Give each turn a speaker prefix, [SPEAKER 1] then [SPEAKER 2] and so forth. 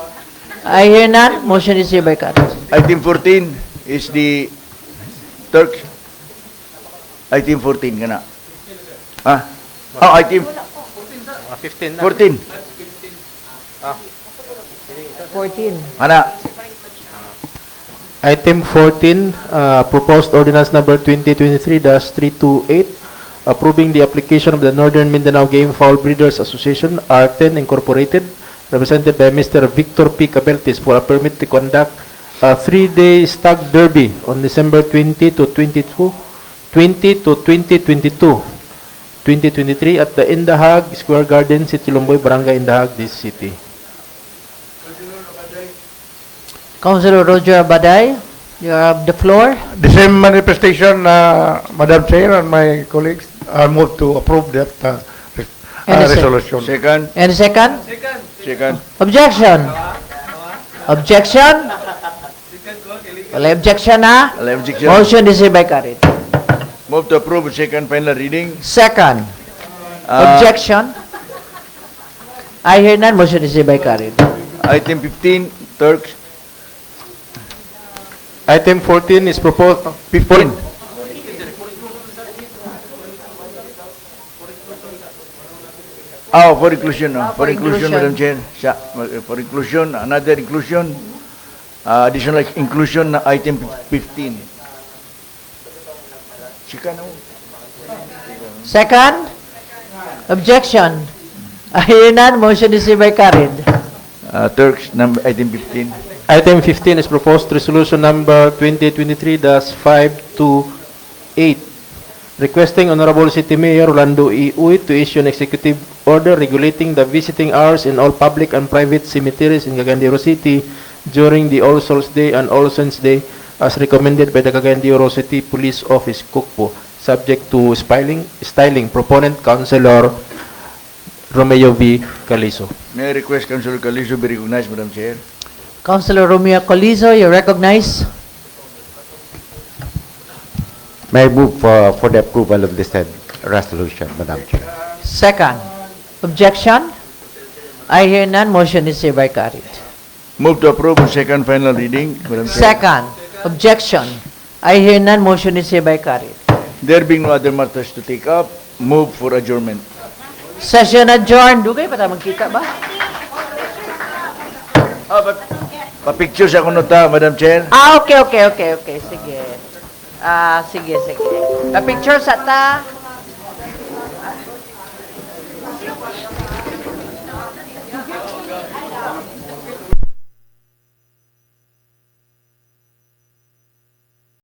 [SPEAKER 1] I hear none. Motion is hereby carried.
[SPEAKER 2] Item 14 is the Turk. Item 14 ka na. Ha? Ah, item
[SPEAKER 3] 15 na.
[SPEAKER 2] 14.
[SPEAKER 4] 14.
[SPEAKER 2] Ana,
[SPEAKER 5] Item 14, uh, proposed ordinance number 2023-328, approving the application of the Northern Mindanao Game Fowl Breeders Association, R10 Incorporated, represented by Mr. Victor P. Cabeltis for a permit to conduct a three-day stag derby on December 20 to 22, 20 to 2022, 2023 at the Indahag Square Garden, City Lumboy, Barangay Indahag, this city.
[SPEAKER 1] Councilor Roger Abaday, you have the floor.
[SPEAKER 6] The same manifestation, uh, Madam Chair and my colleagues, I move to approve that uh, res-
[SPEAKER 1] And a
[SPEAKER 6] uh,
[SPEAKER 1] second.
[SPEAKER 6] resolution.
[SPEAKER 2] second,
[SPEAKER 1] Any second?
[SPEAKER 2] second.
[SPEAKER 1] Objection? Objection? Wala objection ha?
[SPEAKER 2] Wala objection.
[SPEAKER 1] Motion is hereby carried.
[SPEAKER 2] Move to approve second final reading.
[SPEAKER 1] Second,
[SPEAKER 2] Ah,
[SPEAKER 1] objection? I hear none. Motion is hereby carried.
[SPEAKER 2] Item 15, Ah, Turk.
[SPEAKER 5] Item 14 is proposed,
[SPEAKER 2] 15. Ah, for inclusion,
[SPEAKER 1] Ah,
[SPEAKER 2] ah, for
[SPEAKER 1] for
[SPEAKER 2] inclusion,
[SPEAKER 1] inclusion.
[SPEAKER 2] Madam Chair. Siya, ma- eh, for inclusion, another inclusion, ah, additional inclusion na item 15. Chika na mo.
[SPEAKER 1] Second, objection? I hear none. Motion is hereby carried.
[SPEAKER 2] Ah, Turks, number, item 15.
[SPEAKER 5] Item 15 is proposed resolution number 2023-528, requesting Honorable City Mayor Rolando E. Uy to issue an executive order regulating the visiting hours in all public and private cemeteries in Cagandiro City during the All Souls Day and All Saints Day as recommended by the Cagandiro City Police Office, Kukpo, subject to styling, styling, proponent Councilor Romeo V. Calizo.
[SPEAKER 2] May I request Councilor Calizo be recognized, Madam Chair?
[SPEAKER 1] Councilor Romeo Colizo, you recognize?
[SPEAKER 7] May I move for, for the approval of this said resolution, Madam Chair?
[SPEAKER 1] Second, objection? I hear none. Motion is hereby carried.
[SPEAKER 2] Move to approve second final reading, Madam Chair.
[SPEAKER 1] Second, objection. I hear none, motion is hereby carried.
[SPEAKER 2] There being no other matters to take up, move for adjournment.
[SPEAKER 1] Session adjourned. Dugay pa tayo magkita ba?
[SPEAKER 2] Ah, but, papicture sa kuno ta, Madam Chair.
[SPEAKER 1] Ah, okay, okay, okay, okay. Sige. Ah, sige, sige. Pa-picture sa ta.